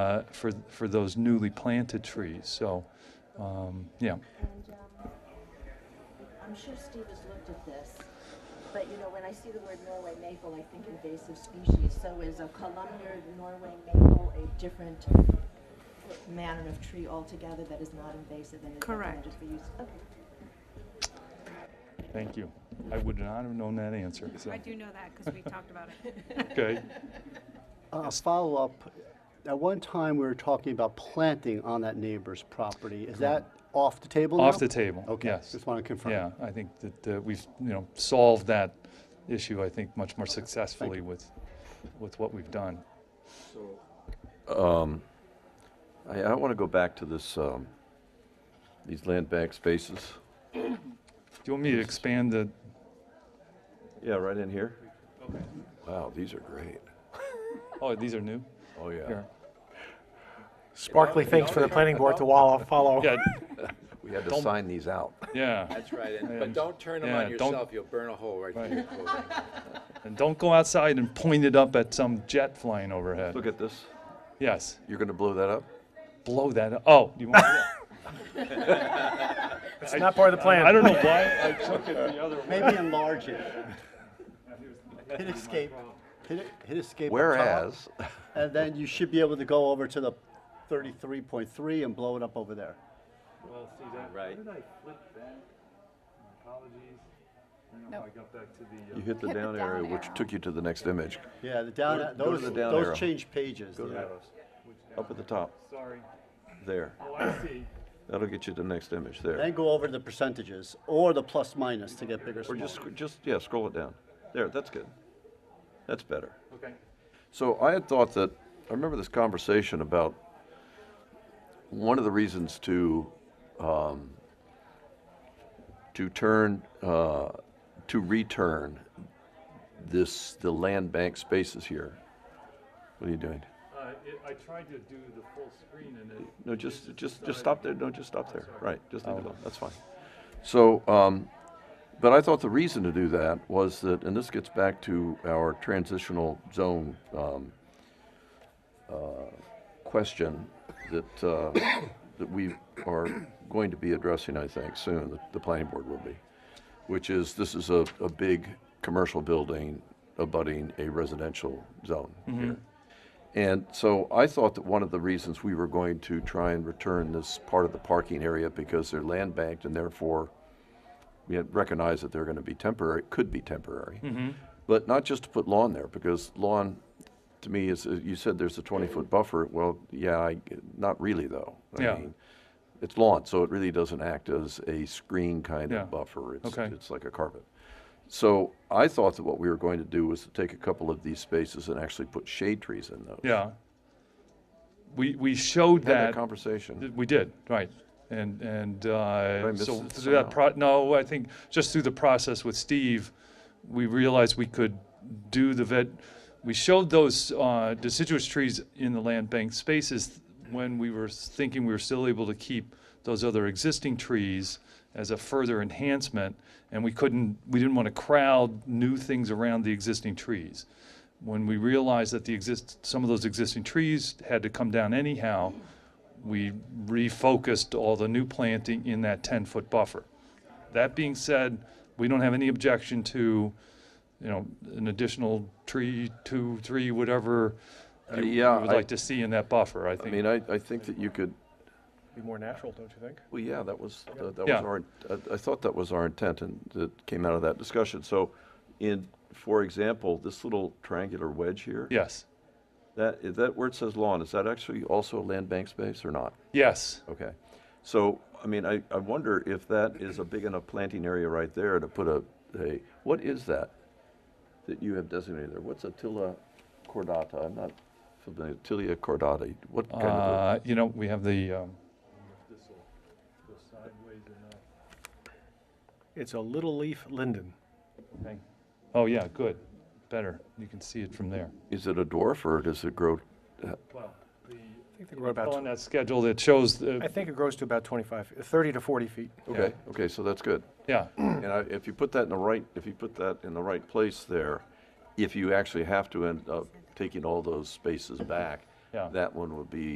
uh, for, for those newly planted trees. So, um, yeah. And um, I'm sure Steve has looked at this, but you know, when I see the word Norway maple, I think invasive species. So is a columnar Norway maple a different manner of tree altogether that is not invasive and is Correct. recommended for use? Okay. Thank you. I would not have known that answer. So. I do know that because we talked about it. Okay. A follow-up, at one time, we were talking about planting on that neighbor's property. Is that off the table now? Off the table. Okay, Yes. just want to confirm. Yeah, I think that uh, we've, you know, solved that issue, I think, much more successfully with, with what we've done. I, I want to go back to this, um, these land bank spaces. Do you want me to expand the, Yeah, right in here. Wow, these are great. oh, these are new? Oh, yeah. Here. Sparkly things for the planning board to wallow, follow. Yeah, We had to Don't- sign these out. yeah. That's right, and, And- but don't turn them yeah, on don't- yourself, you'll burn a hole right Right. through your clothing. And don't go outside and point it up at some jet flying overhead. Look at this. Yes, You're going to blow that up? blow that, up. oh, you want, It's not part of the plan. I don't know why I took it the other way. Maybe enlarge it. Hit escape, hit it- hit escape. up top, Whereas, And then you should be able to go over to the 33.3 and blow it up over there. Well, see that, Right. did I flip that? Apologies. I Nope. got back to you hit the down arrow, which took you to the next image, Yeah, the down, Go to- go to those, the down arrow. those change pages. Go to the that. arrows. up at the top, Sorry. there. Oh, I see. That'll get you to the next image, there. Then go over to the percentages or the plus minus to get bigger, Or smaller. just, sc- just, yeah, scroll it down. There, that's good. That's better. Okay. So I had thought that, I remember this conversation about one of the reasons to, um, to turn, uh, to return this, the land bank spaces here. What are you doing? Uh, it, I tried to do the full screen and it. No, just, just, just stop there, no, just stop there, right, just leave it Oh. alone, that's fine. So, um, but I thought the reason to do that was that, and this gets back to our transitional zone, um, uh, question that, uh, that we are going to be addressing, I think, soon, the, the planning board will be, which is, this is a, a big commercial building abutting a residential zone Mm-hmm. here. And so I thought that one of the reasons we were going to try and return this part of the parking area because they're land banked and therefore we had recognized that they're going to be temporary, could be temporary. Mm-hmm. But not just to put lawn there because lawn, to me, is, uh, you said there's a 20-foot buffer. Well, yeah, I, not really though. I Yeah. mean, It's lawn, so it really doesn't act as a screen kind Yeah. of buffer. It's- Okay. It's like a carpet. So I thought that what we were going to do was to take a couple of these spaces and actually put shade trees in those. Yeah. We, we showed Had that that, conversation. we did, right. And, and, uh, miss so it through that somehow? pro, no, I think just through the process with Steve, we realized we could do the vet, we showed those, uh, deciduous trees in the land bank spaces when we were thinking we were still able to keep those other existing trees as a further enhancement, and we couldn't, we didn't want to crowd new things around the existing trees. When we realized that the exist, some of those existing trees had to come down anyhow, we refocused all the new planting in that 10-foot buffer. That being said, we don't have any objection to, you know, an additional tree, two, three, whatever you you Uh, yeah, would I- like to see in that buffer, I I think. mean, I, I think that you could, Be more natural, don't you think? well, yeah, that was, that that was Yeah. our, I- I thought that was our intent and that came out of that discussion. So in, for example, this little triangular wedge here. Yes, That, is that where it says lawn, is that actually also a land bank space or not? yes. Okay. So, I mean, I, I wonder if that is a big enough planting area right there to put a, a, what is that? That you have designated there? What's Attila cordata? I'm not familiar, Attila cordata. What kind of? a- Uh, you know, we have the, um, It's a little leaf linden. thing. Oh, yeah, good, better. You can see it from there. Is it a dwarf or does it grow? Well, the, I think they grow on about, that schedule that shows, I the think it grows to about 25, 30 to 40 feet. Okay, okay, so that's good. yeah, And I, if you put that in the right, if you put that in the right place there, if you actually have to end up taking all those spaces back, Yeah. That one would be